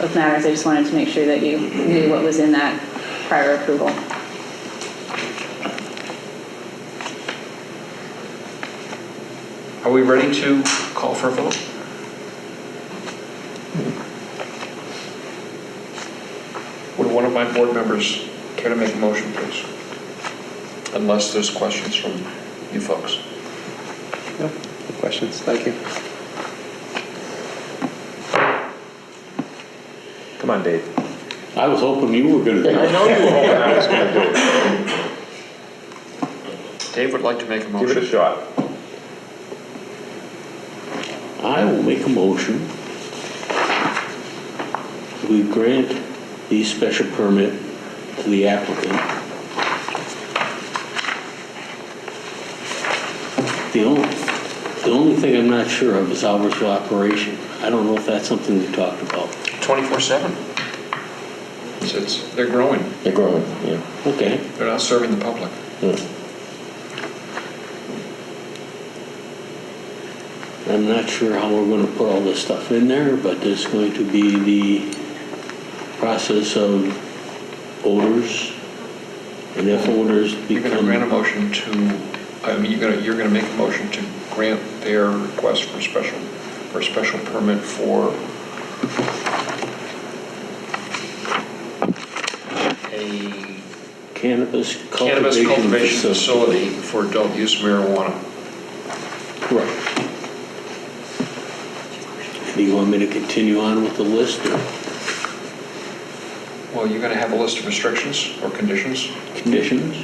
both matters. I just wanted to make sure that you knew what was in that prior approval. Are we ready to call for a vote? Would one of my board members care to make a motion, please? Unless there's questions from you folks. No questions, thank you. Come on, Dave. I was hoping you were gonna do it. know you were hoping I was going to do it. Dave would like to make a motion. Give it a shot. I will make a motion. We grant the special permit to the applicant. The only, the only thing I'm not sure of is hours of operation. I don't know if that's something we talked about. 24/7. It's- It's, they're growing. They're growing, yeah. Okay, They're not serving the public. Hmm. I'm not sure how we're gonna put all this stuff in there, but there's going to be the process of odors. And if odors You're going to become. grant a motion to, I mean, you're going to, you're going to make a motion to grant their request for special, for a special permit for a Cannabis cannabis cultivation cultivation facility facility. for adult use marijuana. Correct. Do you want me to continue on with the list or Well, you're going to have a list of restrictions or conditions? conditions?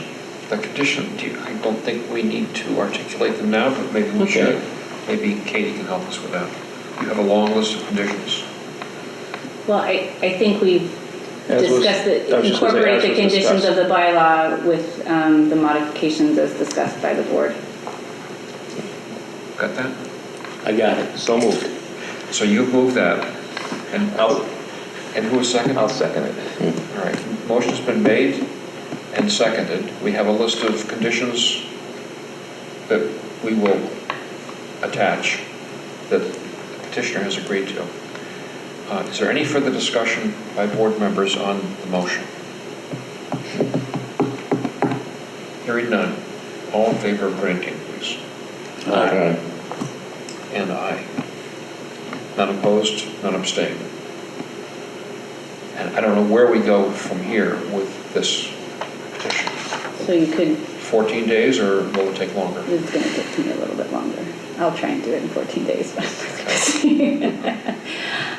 The condition, do you- I don't think we need to articulate them now, but maybe we Okay. should. Maybe Katie can help us with that. You have a long list of conditions. Well, I, I think we've As was- discussed, the- I was just gonna say, incorporate the as was conditions of discussed. the bylaw with um, the modifications as discussed by the board. Got that? I got it. So moved. So you've moved that, and, I'll- and who was second? I'll All second it. right, motion's been made and seconded. We have a list of conditions that we will attach, that the petitioner has agreed to. Uh, Is there any further discussion by board members on the motion? Hearing none. All in favor of granting, please? Aye. And aye. None opposed, none abstained. And I don't know where we go from here with this petition. So you could, 14 days, or will it take longer? it's going to take me a little bit longer. I'll try and do it in 14 days. but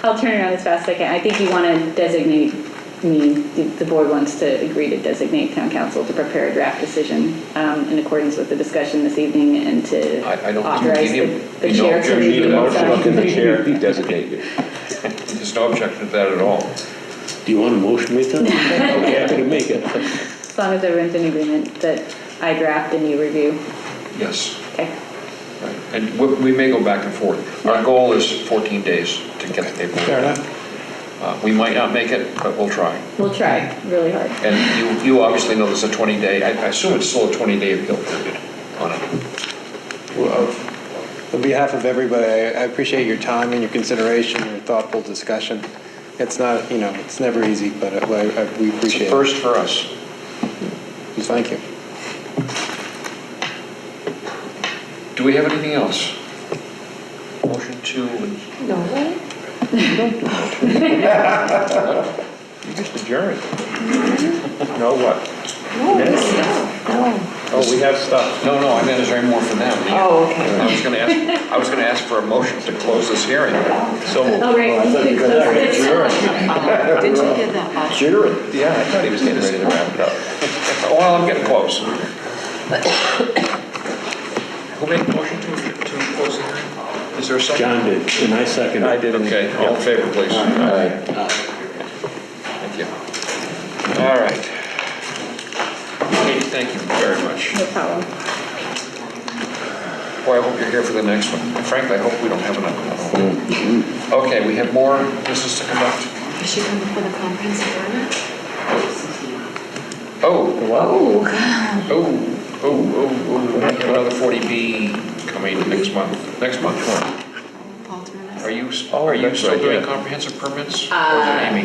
I'll turn around as fast as I can. I think you want to designate, I mean, the- the board wants to agree to designate town council to prepare a draft decision um, in accordance with the discussion this evening and to I- I don't think we authorize need the him. the You chair don't to need review. him. and sign. Motion to the chair designate you. There's no objection to that at all. Do you want a motion to make that? I'm happy to make it. As long as everyone's in agreement that I draft and you review. Yes. Okay. Right. And we- we may go back and forth. Our goal is 14 days to get the paperwork. Fair enough. Uh, We might not make it, but we'll try. We'll try really hard. And you, you obviously know there's a 20-day, I I assume it's still a 20-day appeal period on it. Well, On behalf of everybody, I I appreciate your time and your consideration, your thoughtful discussion. It's not, you know, it's never easy, but I- I- we It's a appreciate it. first for us. Thank you. Do we have anything else? Motion to You just adjourned. No, what? Minutes? Oh, we have stuff. No, no, I meant is there any more for them? Oh, okay. I was gonna ask, I was gonna ask for a motion to close this hearing. So moved. All right. you can close it. Oh, Did you get that? Bob? Adjourned. Yeah, I thought he was getting ready to wrap it up. Well, I'm getting close. Who made the motion to, to close the hearing? Is there a second? John did, and I second it. I did. Okay, all in favor, please. Thank you. All right. Katie, thank you very much. No problem. Boy, I hope you're here for the next one. Frankly, I hope we don't have another one. Okay, we have more business to conduct. Is she coming for the comprehensive permit? Oh, Oh, Oh, oh, oh, oh, we have another 40B coming next month, next month. Paul Turner. Are you you, s- Oh, are you that's still right, doing yeah. comprehensive permits? Or is it Amy?